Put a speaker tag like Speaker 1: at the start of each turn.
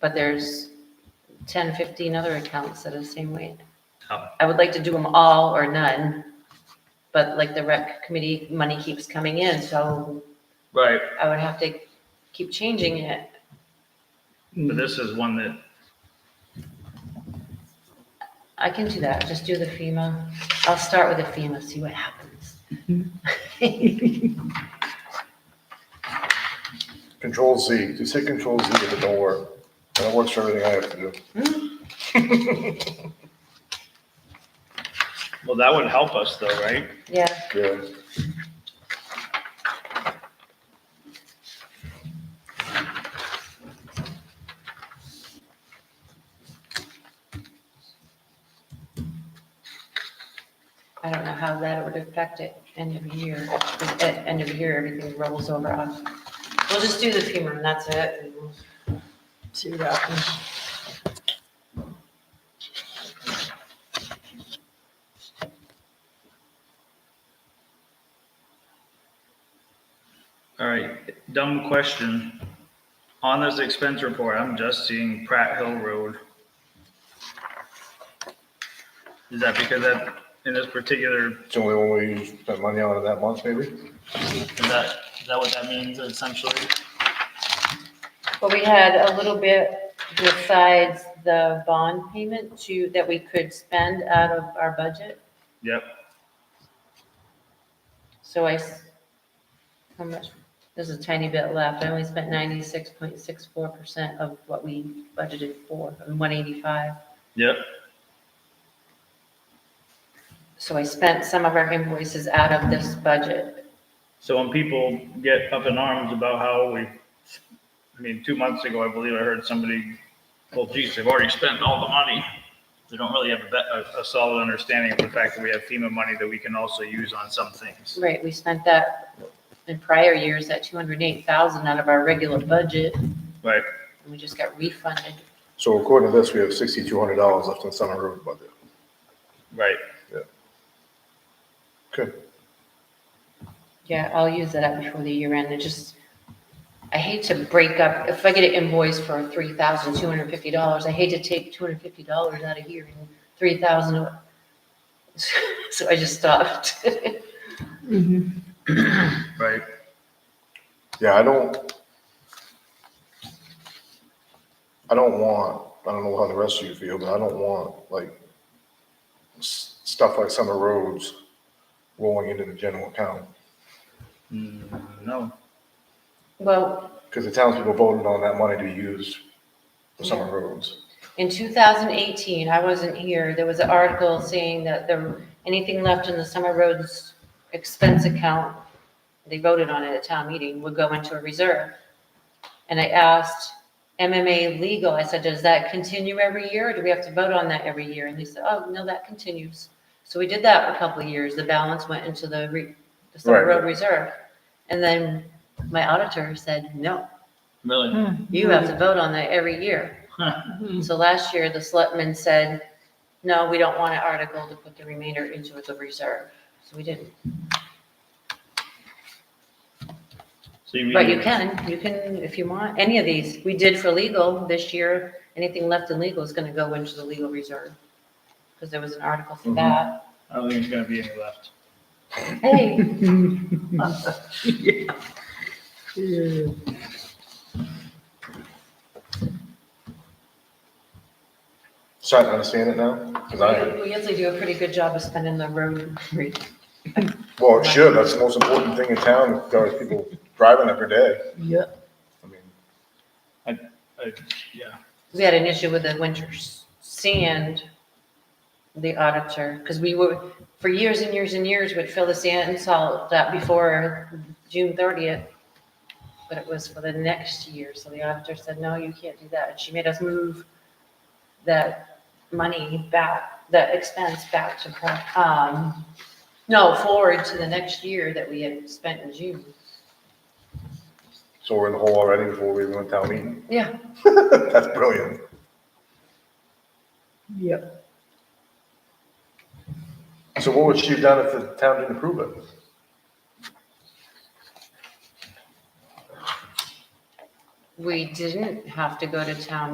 Speaker 1: but there's 10, 15 other accounts that are the same weight.
Speaker 2: Oh.
Speaker 1: I would like to do them all or none, but like the rec committee, money keeps coming in, so
Speaker 2: Right.
Speaker 1: I would have to keep changing it.
Speaker 2: But this is one that,
Speaker 1: I can do that, just do the FEMA. I'll start with the FEMA, see what happens.
Speaker 3: Control Z, just hit Control Z if it don't work. And it works for everything I have to do.
Speaker 2: well, that would help us though, right?
Speaker 1: Yeah,
Speaker 3: Yeah.
Speaker 1: I don't know how that would affect it end of year, 'cause at end of year, everything rolls over us. We'll just do the FEMA and that's it. and we'll See what happens.
Speaker 2: All right, dumb question. On this expense report, I'm just seeing Pratt Hill Road. Is that because that, in this particular,
Speaker 3: It's the only one we spent money on in that month, maybe?
Speaker 2: is that, is that what that means essentially?
Speaker 1: But we had a little bit besides the bond payment to, that we could spend out of our budget.
Speaker 2: Yep,
Speaker 1: So I, s- how much, there's a tiny bit left. I only spent ninety-six point six four percent of what we budgeted for, one eighty-five.
Speaker 2: yep,
Speaker 1: So I spent some of our invoices out of this budget.
Speaker 2: So when people get up in arms about how we, I mean, two months ago, I believe I heard somebody, well, geez, they've already spent all the money. They don't really have a, be- a, a solid understanding of the fact that we have FEMA money that we can also use on some things.
Speaker 1: Right, we spent that in prior years, that two hundred and eight thousand out of our regular budget, and
Speaker 2: Right,
Speaker 1: we just got refunded.
Speaker 3: So according to this, we have sixty-two hundred dollars left in summer road budget.
Speaker 2: right.
Speaker 3: Okay.
Speaker 1: Yeah, I'll use that up before the year end. It just, I hate to break up, if I get an invoice for three thousand two hundred and fifty dollars, I hate to take two hundred and fifty dollars out of here and three thousand. So I just stopped.
Speaker 2: Right.
Speaker 3: Yeah, I don't. I don't want, I don't know how the rest of you feel, but I don't want like s- stuff like summer roads rolling into the general account.
Speaker 2: Mm, No,
Speaker 1: Well,
Speaker 3: Because the townspeople voted on that money to be used for summer roads.
Speaker 1: in two thousand eighteen, I wasn't here, there was an article saying that there, anything left in the summer roads expense account, they voted on it at town meeting, would go into a reserve. And I asked MMA legal, I said, does that continue every year, or do we have to vote on that every year? And they said, oh, no, that continues. So we did that for a couple of years, the balance went into the re, the summer
Speaker 3: Right.
Speaker 1: road reserve. And then my auditor said, no,
Speaker 2: really?
Speaker 1: you have to vote on that every year.
Speaker 2: Huh.
Speaker 1: So last year, the selectmen said, no, we don't want an article to put the remainder into the reserve. So we didn't.
Speaker 2: So you
Speaker 1: But you
Speaker 2: mean,
Speaker 1: can, you can, if you want, any of these. We did for legal this year. Anything left in legal is going to go into the legal reserve. Because there was an article for that.
Speaker 2: I don't think there's gonna be any left.
Speaker 1: Hey,
Speaker 3: Starting to understand it now? Because I,
Speaker 1: we usually do a pretty good job of spending the road. re-
Speaker 3: well, it should, that's the most important thing in town, as far as people driving every day.
Speaker 4: Yeah.
Speaker 3: I mean,
Speaker 2: I- Yeah,
Speaker 1: We had an issue with the winter s- sand, the auditor, because we were, for years and years and years, would fill the sand and salt that before June thirtieth. But it was for the next year, so the auditor said, no, you can't do that. And she made us move that money back, the expense back to, pro- um, no, forward to the next year that we had spent in June.
Speaker 3: so we're in the hole already before we even went town meeting.
Speaker 1: Yeah.
Speaker 3: That's brilliant.
Speaker 4: Yep.
Speaker 3: So what would she have done if the town didn't approve it?
Speaker 1: We didn't have to go to town